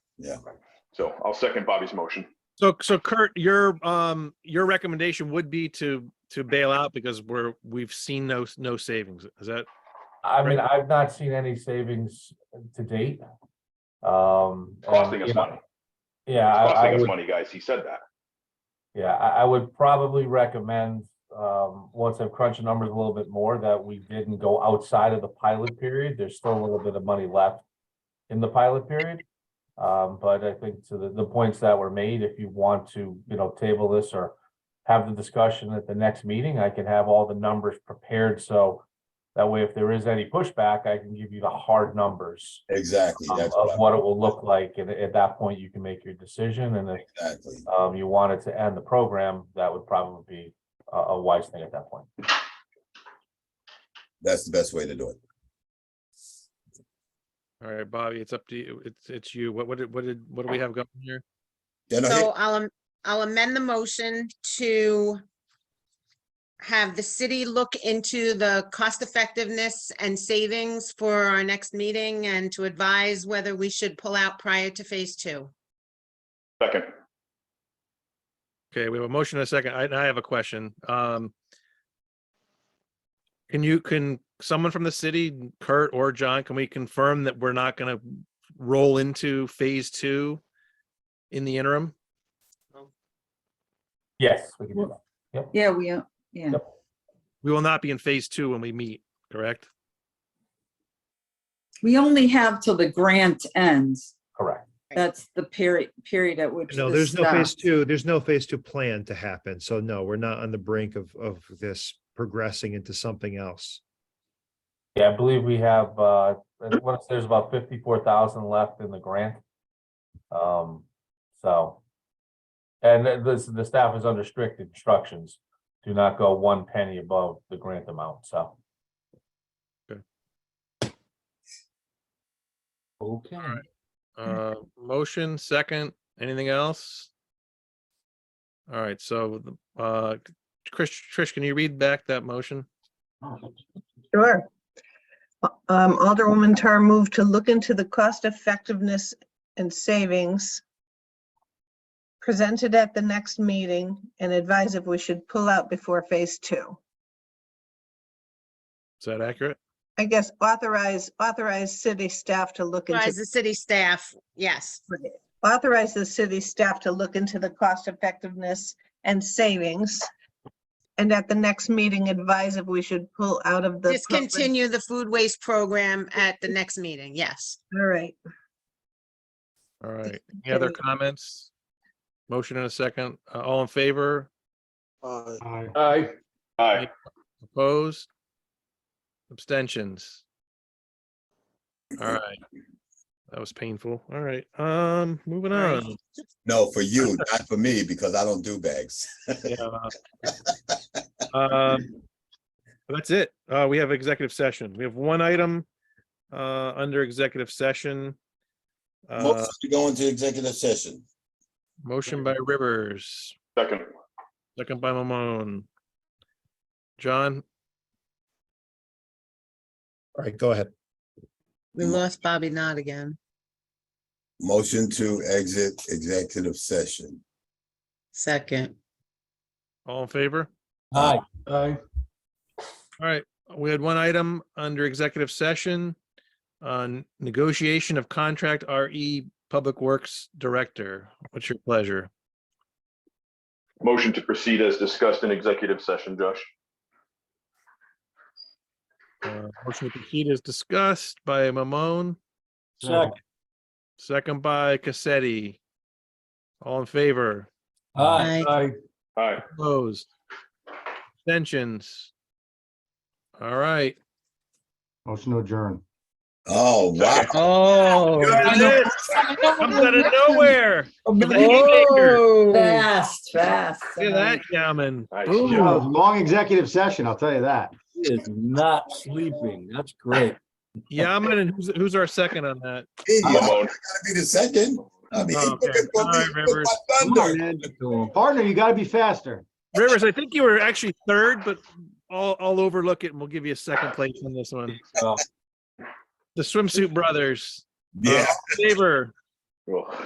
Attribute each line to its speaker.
Speaker 1: So I'll second Bobby's motion.
Speaker 2: So, so Kurt, your, um, your recommendation would be to, to bail out because we're, we've seen no, no savings. Is that,
Speaker 3: I mean, I've not seen any savings to date. Um. and,
Speaker 1: Costing us
Speaker 3: you know,
Speaker 1: money.
Speaker 3: Yeah,
Speaker 1: It's
Speaker 3: I, I
Speaker 1: costing us
Speaker 3: would,
Speaker 1: money, guys. He said that.
Speaker 3: yeah, I, I would probably recommend, um, once I've crunched the numbers a little bit more, that we didn't go outside of the pilot period. There's still a little bit of money left in the pilot period. Um, but I think to the, the points that were made, if you want to, you know, table this or have the discussion at the next meeting, I can have all the numbers prepared, so that way, if there is any pushback, I can give you the hard numbers
Speaker 4: Exactly,
Speaker 3: um,
Speaker 4: that's
Speaker 3: of
Speaker 4: what,
Speaker 3: what it will look like, and at that point, you can make your decision, and if
Speaker 4: I- exactly.
Speaker 3: um, you wanted to end the program, that would probably be a, a wise thing at that point.
Speaker 4: That's the best way to do it.
Speaker 2: all right, Bobby, it's up to you. It's, it's you. What, what did, what did, what do we have going here?
Speaker 4: Yeah, no,
Speaker 5: So
Speaker 4: here-
Speaker 5: I'll, am- I'll amend the motion to have the city look into the cost effectiveness and savings for our next meeting and to advise whether we should pull out prior to phase two.
Speaker 1: Second,
Speaker 2: Okay, we have a motion and a second. I, and I have a question. Um, can you, can someone from the city, Kurt or John, can we confirm that we're not gonna roll into phase two in the interim?
Speaker 3: Yes, we can do that.
Speaker 6: Yeah, we uh, are, yeah.
Speaker 3: Yep.
Speaker 2: We will not be in phase two when we meet, correct?
Speaker 6: We only have till the grant ends.
Speaker 3: Correct.
Speaker 6: That's the period, period at which.
Speaker 7: No,
Speaker 6: this
Speaker 7: there's no phase
Speaker 6: stops.
Speaker 7: two, there's no phase two plan to happen. So no, we're not on the brink of, of this progressing into something else.
Speaker 3: Yeah, I believe we have, uh, and what- there's about fifty-four thousand left in the grant. Um, so. And th- this, the staff is under strict instructions, do not go one penny above the grant amount, so.
Speaker 2: Okay.
Speaker 3: Okay.
Speaker 2: Uh, motion, second, anything else? All right, so, the- uh, Trish, Trish, can you read back that motion?
Speaker 8: Sure. Um, Alderwoman Tar moved to look into the cost effectiveness and savings presented at the next meeting and advise if we should pull out before phase two.
Speaker 2: Is that accurate?
Speaker 8: I guess authorize, authorize city staff to look
Speaker 5: Advise
Speaker 8: into,
Speaker 5: the city staff, yes.
Speaker 8: authorize the city staff to look into the cost effectiveness and savings. And at the next meeting, advise if we should pull out of the. public-
Speaker 5: Discontinue the food waste program at the next meeting, yes.
Speaker 8: All right.
Speaker 2: All right, any other
Speaker 8: Okay.
Speaker 2: comments? Motion in a second, Uh, all in favor,
Speaker 3: Aye.
Speaker 1: aye,
Speaker 2: opposed? Abstentions? All right. That was painful. All right, um, moving
Speaker 5: Right.
Speaker 2: on.
Speaker 4: no, for you, not for me, because I don't do bags.
Speaker 2: Yeah. Um, That's it. Uh, we have executive session. We have one item, uh, under executive session. Uh,
Speaker 4: Motion to go into executive session.
Speaker 2: motion by Rivers,
Speaker 1: second,
Speaker 2: second by Mamone. John,
Speaker 7: All right, go ahead.
Speaker 5: We lost Bobby Knott again.
Speaker 4: Motion to exit executive session.
Speaker 5: Second.
Speaker 2: all in favor?
Speaker 3: Aye.
Speaker 2: All right, we had one item under executive session on negotiation of contract RE Public Works Director. What's your pleasure?
Speaker 1: motion to proceed as discussed in executive session, Josh.
Speaker 2: Uh, Motion to proceed is discussed by Mamone.
Speaker 3: Second.
Speaker 2: Second by Cassetti. All in favor,
Speaker 5: Aye.
Speaker 1: Aye,
Speaker 2: opposed, abstentions. All right.
Speaker 9: Motion to adjourn.
Speaker 4: Oh, wow.
Speaker 2: Oh. Comes out of nowhere. With a haymaker.
Speaker 6: Fast, fast.
Speaker 2: Look at that gammon.
Speaker 1: Nice
Speaker 2: Boom.
Speaker 1: job.
Speaker 9: That was a Long executive session, I'll tell you that.
Speaker 10: He is not sleeping. That's great.
Speaker 2: Yaman, and who's, who's our second on that?
Speaker 4: Hey, I gotta
Speaker 1: Mamone,
Speaker 4: be the second. I mean,
Speaker 2: Oh,
Speaker 4: he
Speaker 2: okay.
Speaker 4: looking for
Speaker 2: All
Speaker 4: me
Speaker 2: right,
Speaker 4: with
Speaker 2: Rivers.
Speaker 4: my
Speaker 10: Come
Speaker 4: thunder.
Speaker 10: on, man.
Speaker 9: Partner, you gotta be faster.
Speaker 2: Rivers, I think you were actually third, but I'll, I'll overlook it and we'll give you a second place on this one.
Speaker 3: So-
Speaker 2: The swimsuit brothers. Uh,
Speaker 4: Yeah.
Speaker 2: Favor.
Speaker 1: well.